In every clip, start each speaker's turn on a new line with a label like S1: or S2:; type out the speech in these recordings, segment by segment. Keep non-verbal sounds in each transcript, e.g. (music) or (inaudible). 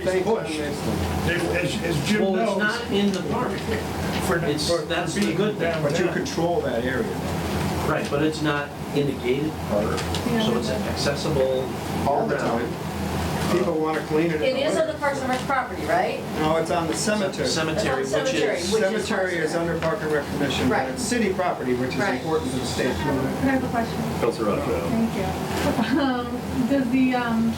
S1: They
S2: everybody's
S1: push.
S2: push. If- As, as Jim
S3: Well, it's
S2: knows,
S3: not in the park.
S2: for,
S3: it's- that's
S2: for
S3: the
S2: being
S3: good thing.
S2: downtown.
S1: But you control that area.
S3: Right, but it's not in the gated park, so it's accessible
S1: All the time. People want to clean it.
S4: It is on the Parks and Rec property, right?
S1: No, it's on the cemetery.
S3: Cemetery,
S4: It's on
S3: which
S4: cemetery.
S3: is,
S4: which is
S1: Cemetery
S4: Parks
S1: is
S4: and
S1: under Park and Rec Commission, but
S4: Right.
S1: it's city property, which is
S4: Right.
S1: important to the
S5: I
S1: state.
S5: have a question.
S6: Councilor Raphael.
S5: Thank you. Um, Does the, um,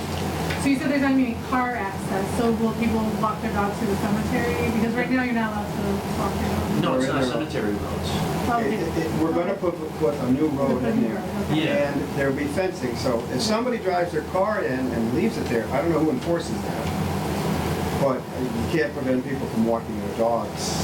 S5: so you said there's not gonna be any car access, so will people walk their dogs to the cemetery? Because right now you're not allowed to walk your dogs.
S3: no, it's not cemetery roads.
S1: It-
S5: Okay.
S1: it- it- We're going to put, put a new road in there.
S5: Okay.
S3: Yeah.
S1: And there'll be fencing, so if somebody drives their car in and leaves it there, I don't know who enforces that. But you can't prevent people from walking their dogs.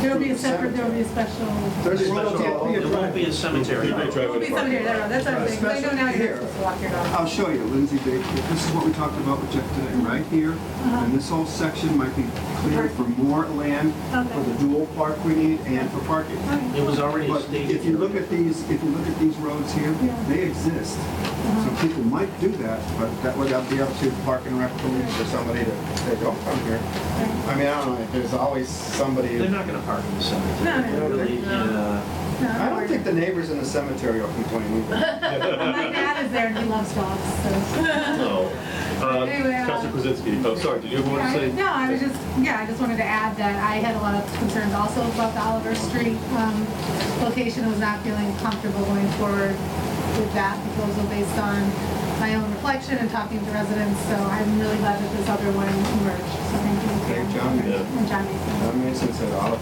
S5: There'll be a separate, there'll be a special.
S1: There's a little-
S3: Special-
S1: can't be a
S3: There won't be a
S1: driveway.
S3: cemetery
S6: You may
S3: road.
S6: drive
S5: There'll
S6: in
S5: be
S6: the park.
S5: cemetery, there, that's what I'm saying, 'cause I know now you're
S1: Here.
S5: not supposed to walk your
S7: I'll
S5: dog.
S7: show you, Lindsay Baker, this is what we talked about with Jeff today, right here. And this whole section might be cleared for more land, for the dual park we need, and for parking.
S3: It was already a
S7: But
S3: state.
S7: if you look at these, if you look at these roads here,
S5: Yeah.
S7: they exist. So people might do that, but that would
S1: That'll be up to Park and Rec police for somebody to, say, don't come here. I mean, I don't know, there's always somebody.
S3: They're not gonna park in the
S5: No,
S3: cemetery,
S5: no,
S1: no.
S3: really, uh,
S1: I don't think the neighbors in the cemetery will complain either.
S5: My dad is there and he loves dogs, so.
S6: No. Uh,
S5: Anyway, uh,
S6: Councilor Krasinski, oh, sorry, did you ever want to say?
S5: No, I was just, yeah, I just wanted to add that I had a lot of concerns also about the Oliver Street um, location. I was not feeling comfortable going forward with that proposal based on my own reflection and talking to residents. So I'm really glad that this other one emerged. So thank you.
S1: Thank John,
S6: yeah.
S5: And John
S1: I
S5: Mason.
S1: mean, since it
S7: "Oh,
S1: all.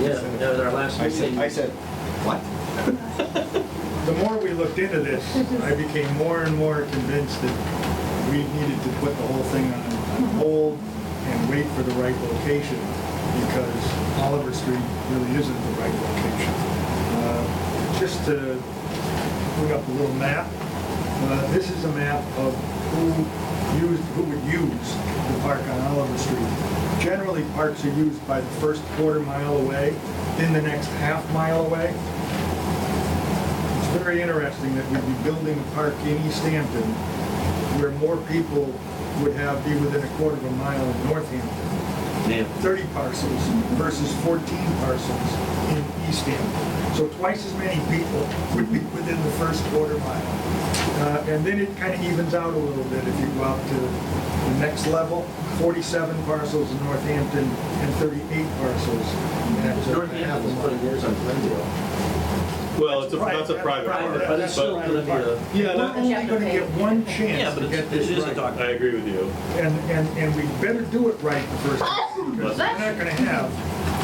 S3: yeah, at our last
S1: I said,
S3: meeting.
S1: I said, what?
S2: The more we looked into this, I became more and more convinced that we needed to put the whole thing on on hold and wait for the right location, because Oliver Street really isn't the right location. Uh, Just to put up a little map, uh, this is a map of who used, who would use the park on Oliver Street. Generally, parks are used by the first quarter mile away, then the next half mile away, it's very interesting that we'd be building a park in East Hampton where more people would have, be within a quarter of a mile in Northampton.
S3: Yeah.
S2: 30 parcels versus 14 parcels in East Hampton. So twice as many people would be within the first quarter mile. Uh, And then it kind of evens out a little bit if you go out to the next level, 47 parcels in Northampton and 38 parcles. at, uh,
S3: Northampton's putting theirs on Glendale.
S6: Well, it's a,
S2: Right,
S6: that's a
S2: that's
S6: private park.
S2: private,
S3: Private, but it's still
S2: Right.
S3: gonna be a,
S6: Yeah,
S2: We're
S6: that-
S2: only gonna get one
S3: yeah,
S2: chance
S3: but
S2: to
S3: it's-
S2: get
S3: it
S2: this
S3: is a
S2: right.
S3: dog.
S6: I agree with you.
S2: And, and, and we better do it right the first time, because we're not gonna have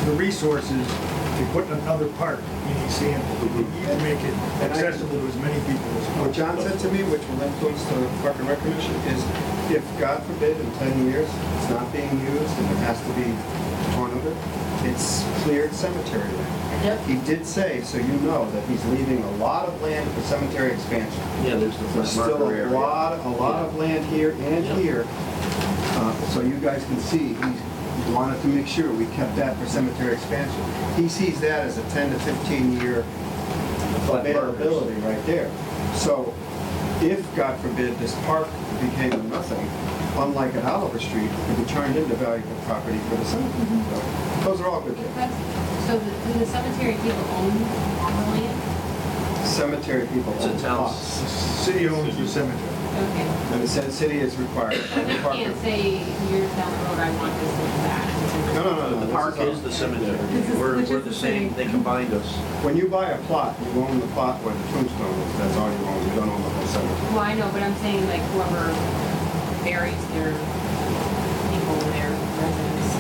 S2: the resources to put another park in East Hampton. We need to make it accessible to as many people as
S1: What
S2: possible.
S1: John said to me, which will influence the Park and Rec Commission, is if, God forbid, in 10 years, it's not being used and it has to be torn over, it's cleared cemetery land.
S4: Yep.
S1: He did say, so you know, that he's leaving a lot of land for cemetery expansion.
S3: yeah, there's the
S1: There's
S3: flat
S1: still
S3: marker
S1: a
S3: area.
S1: lot, a lot of land here and
S3: Yeah.
S1: here.
S7: Uh, So you guys can see, he wanted to make sure we kept that for cemetery expansion.
S1: He sees that as a 10 to 15-year
S3: Flat markers.
S1: availability right there. So if, God forbid, this park became a nothing, unlike at Oliver Street, it would be turned into valuable property for the cemetery. So Those are all good things.
S8: Mm-hmm. So the- do the cemetery people own the land?
S1: Cemetery people
S3: It's a
S1: own
S3: town.
S1: lots.
S2: City owns the cemetery.
S8: Okay.
S1: And the Sin city is required.
S8: But they
S1: Park-
S8: can't say years down the road, I want this and that.
S1: No, no, no, no.
S3: The
S1: this
S3: park
S1: all-
S3: is the cemetery.
S5: This is-
S3: We're,
S5: which
S3: we're
S5: is
S3: the
S5: the
S3: same,
S5: same.
S3: they combined us.
S1: When you buy a plot, you own the plot where the tombstone is. That's all you own. You don't own the whole cemetery.
S8: Well, I know, but I'm saying like whoever buries their people, their residents.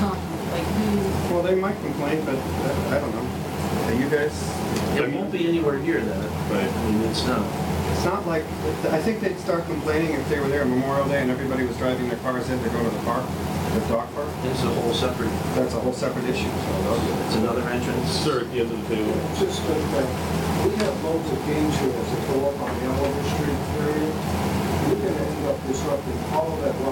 S8: (laughs) um, Like who,
S1: Well, they might complain, but uh, I don't know. Are you guys?
S3: It won't be anywhere near that.
S6: Right.
S3: I mean, it's not.
S1: It's not like, I think they'd start complaining if they were there Memorial Day and everybody was driving their cars in to go to the park, the dog park.
S3: It's a whole separate,
S1: That's a whole separate issue, so those-
S3: it's another entrance.
S6: Sir, at the end of the table.
S9: Just a thing, we have loads of game trails that go up on the Oliver Street area. We're gonna end up disrupting all of that raw uh, uh,